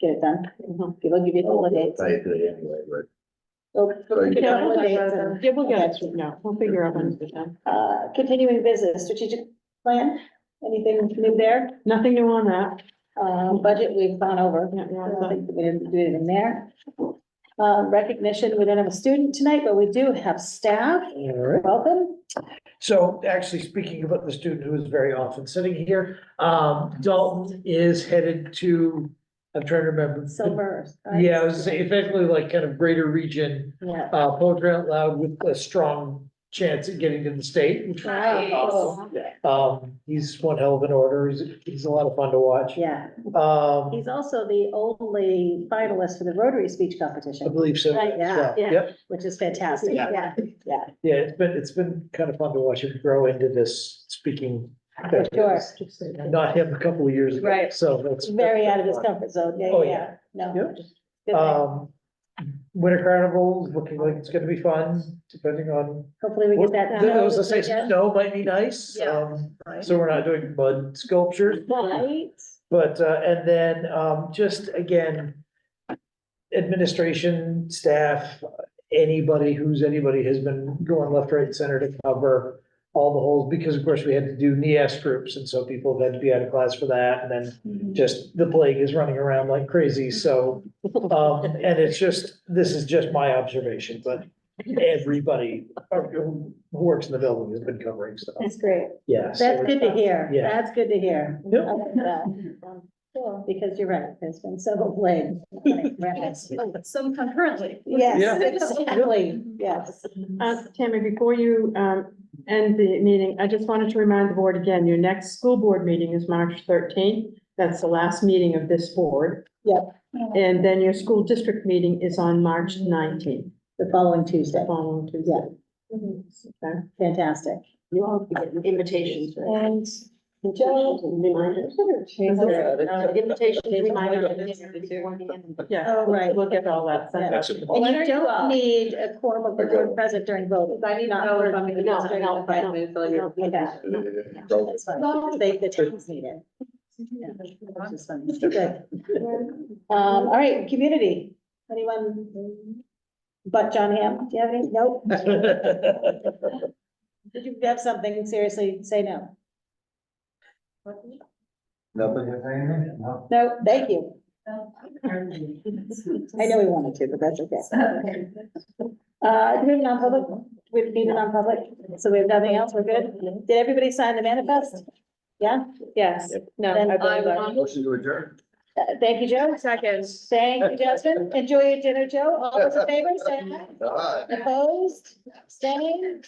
get it done. Mm-hmm. People give you holidays. Say it anyway, but. So, Right. get Yeah, we'll holidays get and- it. Yeah, we'll get it. No, we'll figure out when it's done. Uh, continuing business, strategic plan, anything new there? Nothing new on that. Uh, budget we've gone over. Yeah, yeah, I it's don't like- think we didn't do it in there. Uh, recognition, we don't have a student tonight, but we do have staff. All right. Welcome. So actually, speaking about the student who is very often sitting here, um, Dalton is headed to, I'm trying to remember. Silver. Yeah, I was saying effectively like kind of greater region, Yeah. uh, poetry out loud with a strong chance at getting to the state. Wow, cool. Um, he's one hell of an order. He's, he's a lot of fun to watch. Yeah, Um, he's also the only finalist for the Rotary Speech I Competition, believe so. Right, yeah, So, yeah. Yep, which is fantastic. Yeah. Yeah, yeah, it's been, it's been kind of fun to watch him grow into this speaking. for sure. Not him a couple of years ago. Right. So that's. Very out of his comfort zone. Yeah, Oh, yeah, yeah. yeah. No. Yep. good thing. Um, Winter Carnival is looking like it's gonna be fun, depending on. Hopefully we get that. There was a say, done. snow might be nice, Yeah. um, so we're not doing mud sculptures, Right? but, uh, and then, um, just again. Administration, staff, anybody who's anybody has been going left, right, and center to cover all the holes, because of course we had to do NEAS groups, and so people had to be out of class for that, and then Mm-hmm. just the plague is running around like crazy, so. Um, and it's just, this is just my observation, but everybody who works in the building has been covering stuff, That's great. yeah. so- That's good to hear. Yeah. That's good to hear. I Yep. like that. Um, cool, Because you're right, there's been several blame. Yes, Some concurrently. Yeah. exactly, yes. Uh, Tammy, before you, um, end the meeting, I just wanted to remind the board again, your next school board meeting is March thirteenth. That's the last meeting of this board. Yep. And then your school district meeting is on March nineteenth, The following Tuesday. following Tuesday. Okay. Fantastic. You all be getting invitations, And Invitations and uh, reminders. Invitations, reminders. Yeah. Oh, right. We'll get all that sent out. That's it. And you Why don't you, don't uh, need a quorum of the board present during voting. I need to Not know if for- I'm gonna No, be doing no, it, but- no. Okay, that- that's fine, because They, the towns need it. Yeah, which is fun. Good. Um, all right, community, anyone? But John Ham, do you have any? Nope. Did you have something? Seriously, say no. Nothing is hanging? No, thank you. I know we wanted to, but that's okay. Uh, do we have non-public? We've been non-public, so we have nothing else. We're good. Did everybody sign the manifest? Yeah? Yes. No. Motion to adjourn. Thank you, Joe. Second. Thank you, Justin. Enjoy your dinner, Joe. All those in favor, say aye. All right. Opposed, abstaining,